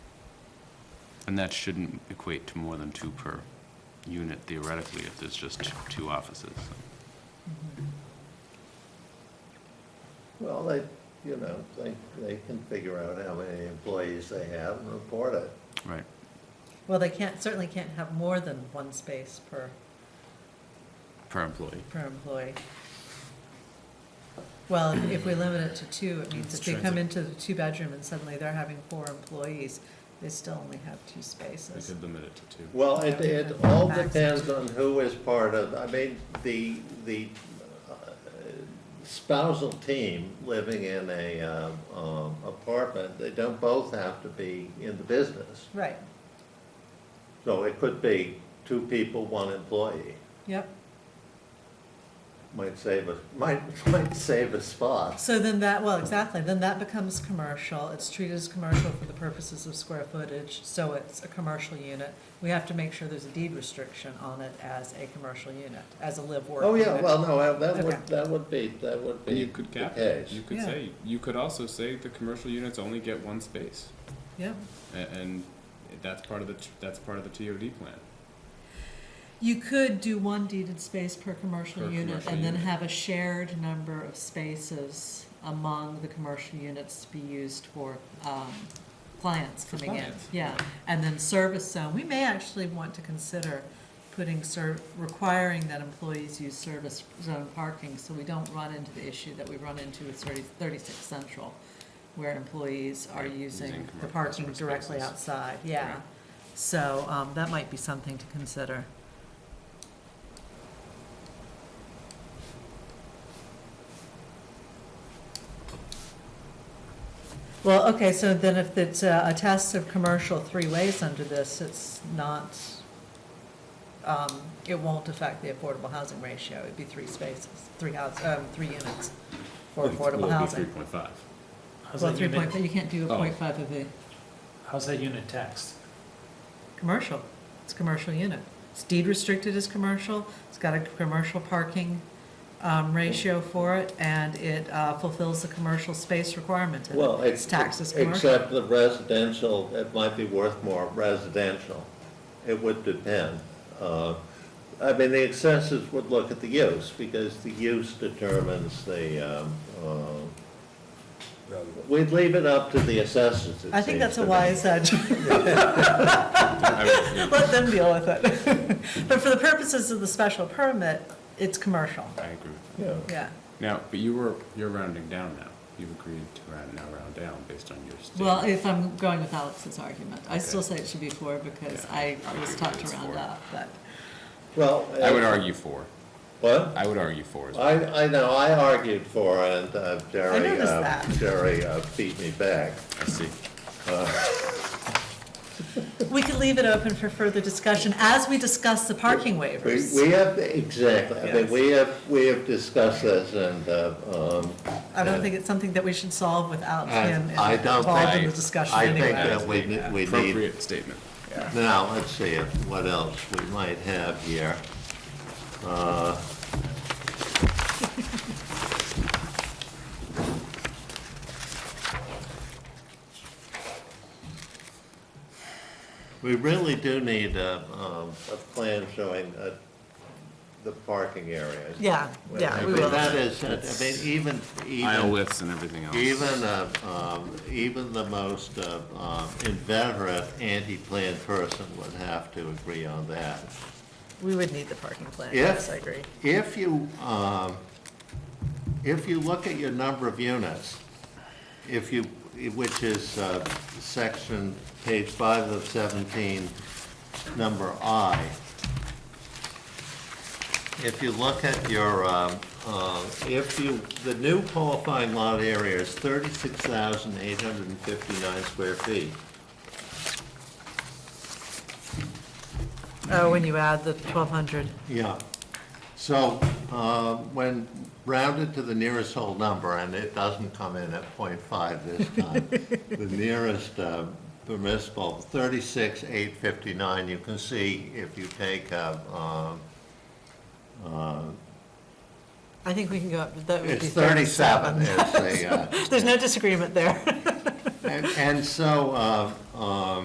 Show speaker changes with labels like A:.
A: And that shouldn't equate to more than two per unit theoretically if there's just t- two offices.
B: Mm-hmm.
C: Well, they, you know, they, they can figure out how many employees they have and report it.
A: Right.
B: Well, they can't, certainly can't have more than one space per,
A: Per employee.
B: per employee. Well, if we limit it to two, it means if they come into the two-bedroom and suddenly they're having four employees, they still only have two
A: We
B: spaces.
A: could limit it to two.
C: Well, it, it all depends on who is part of, I mean, the, the uh, spousal team living in a, um, um, apartment, they don't both have to be in the business.
B: Right,
C: So it could be two people, one employee,
B: yep.
C: might save a, might, might save a spot.
B: So then that, well, exactly, then that becomes commercial, it's treated as commercial for the purposes of square footage, so it's a commercial unit. We have to make sure there's a deed restriction on it as a commercial unit, as a live-work
C: Oh,
B: unit.
C: yeah, well, no, that
B: Okay.
C: would, that would be, that would
D: And
C: be
D: you could
C: the
D: cap it.
C: case.
D: You could
B: Yeah.
D: say, you could also say the commercial units only get one space.
B: Yeah.
D: A- And that's part of the, t- that's part of the TOD plan.
B: You could do one deeded space per commercial
D: Per
B: unit
D: commercial
B: and then
D: unit.
B: have a shared number of spaces among the commercial units to be used for, um, clients
D: For
B: coming in.
D: clients,
B: Yeah, and then service zone, we may actually want to consider putting ser, requiring that employees use service zone parking so we don't run into the issue that we run into with 30 36 Central, where employees are
A: Right,
B: using
A: using
B: the
A: commer-
B: parking
A: customer
B: directly
A: spaces.
B: outside, yeah.
D: Right.
B: So, um, that might be something to consider. Well, okay, so then if it's uh, a test of commercial three ways under this, it's not, um, it won't affect the affordable housing ratio. It'd be three spaces, three house, um, three units for affordable housing.
D: three point five.
E: How's
B: Well,
E: that
B: three
E: unit-
B: point, you can't do a
D: Oh.
B: point five of a
E: How's that unit taxed?
B: commercial. It's a commercial unit. It's deed restricted as commercial. It's got a commercial parking, um, ratio for it and it, uh, fulfills the commercial space requirement. and
C: Well,
B: It's
C: it's.
B: taxed as commercial.
C: Except the residential, it might be worth more residential. It would depend. Uh, I mean, the assessors would look at the use, because the use determines the, um, uh, we'd leave it up to the assessors. it
B: I think that's
C: seems to
B: a
C: me.
B: wise, uh, let them deal with it. But for the purposes of the special permit, it's commercial,
D: I agree with
C: Yeah.
D: that.
B: yeah.
D: Now, but you were, you're rounding down now. You've agreed to round, now round down based on your statement.
B: Well, if I'm going with Alex's argument, I still
D: Okay.
B: say it should be four because
D: Yeah,
B: I
D: I would
B: was
D: agree
B: taught
D: that
B: to
D: it's
B: round
D: four.
B: up, but,
C: Well.
D: I would
C: uh,
D: argue for.
C: What?
D: I would argue for as well.
C: I, I know, I argued for, it, and uh, Jerry,
B: noticed
C: uh,
B: that.
C: Jerry uh, beat me back.
D: I see.
B: we could leave it open for further discussion as we discuss the parking
C: We,
B: waivers.
C: we have, exactly, I mean, we have, we have discussed this and, uh, um.
B: I don't think it's something that we should solve without him
C: and I don't
B: involved in the
C: think-
B: discussion
C: I think
B: anyway.
C: that we, ne- we need,
D: Appropriate statement.
C: now, let's see if, what else we might have here. Uh, We really do need a, um, a plan showing, uh, the parking areas.
B: Yeah, yeah,
C: I
B: we
C: mean,
B: will.
C: that is, I mean, even,
D: Aisle
C: even,
D: widths and everything else.
C: even, uh, um, even the most uh, um, inveterate anti-plan person would have to agree on that.
B: We would need the parking plan,
C: If-
B: yes, I agree.
C: If you, um, if you look at your number of units, if you, which is uh, section, page five of 17, number I, if you look at your, um, uh, if you, the new qualifying lot area is 36,859 square feet.
B: Oh, when you add the twelve hundred.
C: Yeah. So uh, when rounded to the nearest whole number, and it doesn't come in at .5 this time, the nearest uh, permissible, thirty-six, eight fifty-nine, you can see if you take, uh, um,
B: I think we can go up, that would
C: it's
B: be
C: thirty-seven
B: thirty-seven.
C: is the, uh,
B: There's no disagreement there.
C: and and so, uh, um,